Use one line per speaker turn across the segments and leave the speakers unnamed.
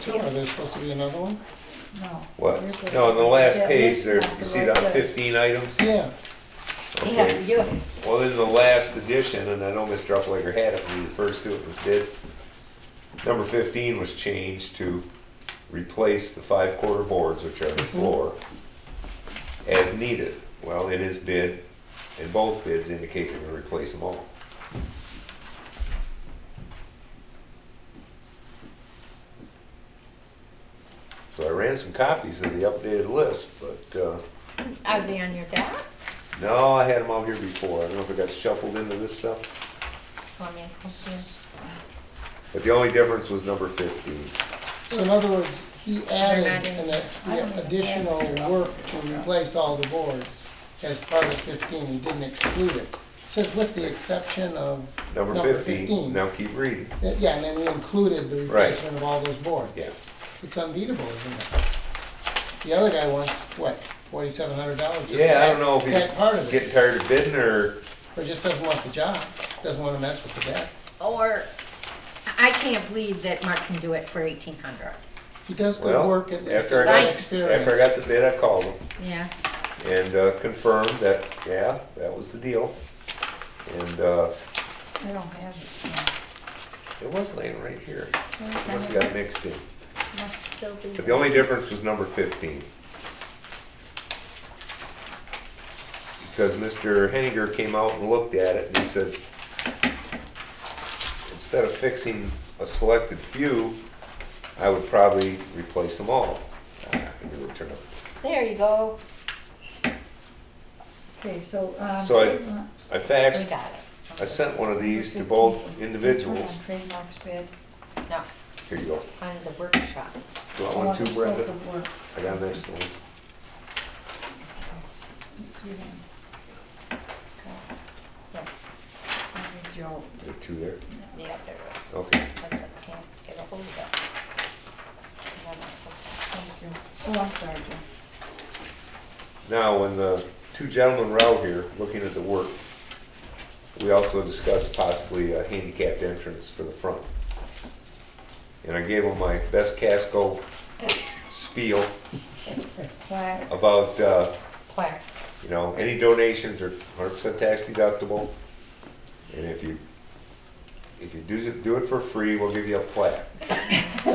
Sure, there's supposed to be another one?
No.
What?
you're good.
No, on the last
Yeah,
page
list
there,
not
you
the
see
right
that
list.
fifteen items?
Yeah,
Okay. Well, in the last edition, and I know Mr. Uplager had it when he refers to it, was did. Number fifteen was changed to replace the five quarter boards, which are the floor, as needed. Well, it is bid, and both bids indicate they're gonna replace them all. So I ran some copies of the updated list, but, uh,
Are they on your desk?
no, I had them all here before. I don't know if it got shuffled into this stuff.
Want me to help
But the only difference was number fifteen.
so in other words, he added
not in-
an ad- additional work to replace all the boards as part of fifteen, he didn't exclude it. Says with the exception of
Number
number
fifteen,
fifteen.
now keep reading.
Uh, Yeah, and then he included the replacement of all those boards.
Yeah.
It's unbeatable, isn't it? The other guy wants, what, forty-seven hundred dollars just for
Yeah, I don't know
that,
if
that part
he's
of it,
getting tired of bidding or,
or just doesn't want the job, doesn't wanna mess with the debt.
you? Or, I can't believe that Mark can do it for eighteen hundred.
He does good
well,
work, at least
after I
in
got,
my
Right.
experience.
after I got the bid, I called him
Yeah,
and uh, confirmed that, yeah, that was the deal. And, uh,
I don't have it.
it was laying right here. It Must have got mixed in.
must still be.
But the only difference was number fifteen. Because Mr. Henninger came out and looked at it and he said, instead of fixing a selected few, I would probably replace them all. Ah, I knew it turned out-
There you go,
Okay, so, um.
So I-
trademarks-
I
we
faxed,
got it,
I sent one of these to
Number 15
both
is the
individuals.
different on Trademarks bid.
no,
Here you go.
on the workshop.
Do I
Oh,
want
the
two,
scope
Brenda?
of work.
I got an extra one.
You can-
Yeah,
I think Joe-
Is there two there?
Yeah, there it is.
Okay.
I just can't get a hold of it.
thank you. Oh, I'm sorry, Joe.
Now, when the two gentlemen were out here looking at the work, we also discussed possibly a handicapped entrance for the front. And I gave them my best Casco spiel
Plaque,
about, uh,
Claire,
you know, any donations are hundred percent tax deductible. And if you, if you do, do it for free, we'll give you a plaque.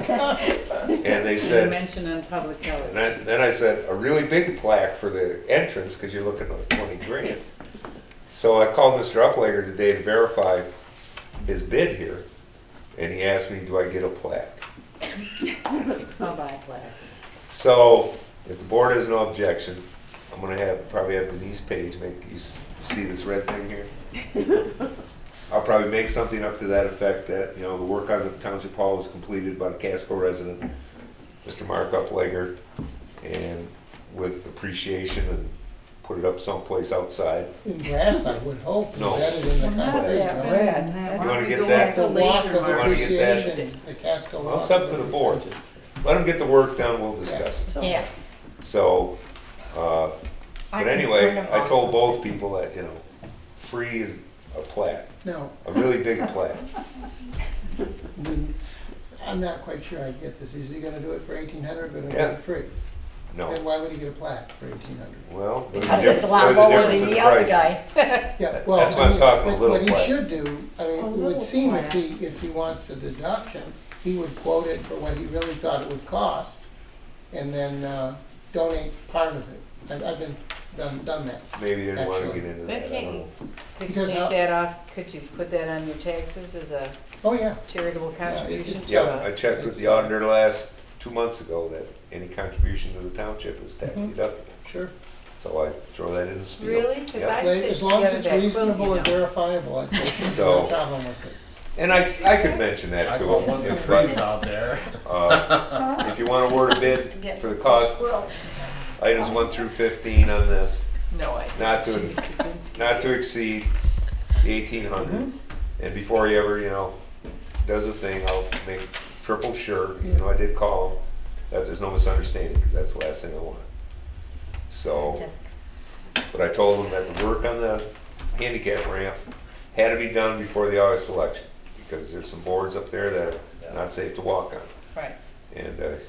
And they
You
said,
mentioned on public
And
health.
I, then I said, a really big plaque for the entrance, because you're looking at twenty grand. So I called Mr. Uplager today to verify his bid here, and he asked me, do I get a plaque?
I'll buy a plaque.
So, if the board has no objection, I'm gonna have, probably have Denise Page make, you s- see this red thing here? I'll probably make something up to that effect that, you know, the work on the township hall was completed by the Casco resident, Mr. Mark Uplegger, and with appreciation and put it up someplace outside.
In brass, I would hope,
No.
embedded in the
Well, not
concrete.
that
no.
red.
You wanna get
It's a
that?
walk
Laser
of
mark.
You wanna get that?
appreciation, the Casco walk.
Well, it's up to the
of
board.
appreciation.
Let them get the work done, we'll discuss it.
So-
yes.
So, uh,
I
but
can print
anyway,
'em
I
off.
told both people that, you know, free is a plaque.
No,
a really big plaque.
I mean, I'm not quite sure I get this. Is he gonna do it for eighteen hundred, gonna do
Yeah.
it free? Then
No,
why would he get a plaque for eighteen hundred?
well. but
Cause
there's
it's a lot
there's a
lower
difference
than
in
the other
prices.
guy.
Yeah,
That-
well,
that's why
I
I'm
mean,
talking a
but
little
what he
plaque.
should do, I mean,
A
it
little
would seem if
plaque.
he, if he wants a deduction, he would quote it for what he really thought it would cost and then, uh, donate part of it. I've, I've been, done, done that.
Maybe they didn't want to
Actually.
get into
But
that, I
can't
don't
you-
know.
Could you
Because how-
take that off, could you put that on your taxes as a
Oh, yeah.
charitable contribution?
it's-
Yeah, I checked with the auditor last, two months ago, that any contribution to the township is tax
Mm-hmm.
Mhm.
deductible.
Sure.
So I throw that in the spiel.
Really? 'Cause
Yeah.
I
Like,
stitched
As long as
together
it's
that quilt, you
reasonable and
know.
verifiable, I think there's no
So-
problem with it.
And I, I could mention that
I
to
got one
them,
of the
if,
trees
but,
out there.
uh, if you want to word a bid for the cost, items one through fifteen on this,
No, I didn't.
Not to-
Gee, Kaczynski.
not to exceed eighteen hundred. And before he ever, you know, does a thing, I'll make triple sure, you know, I did call him, that there's no misunderstanding, because that's the last thing I want. So,
Just
but I told him that the work on the handicap ramp had to be done before the August election, because there's some boards up there that are not safe to walk on.
Right.
And uh,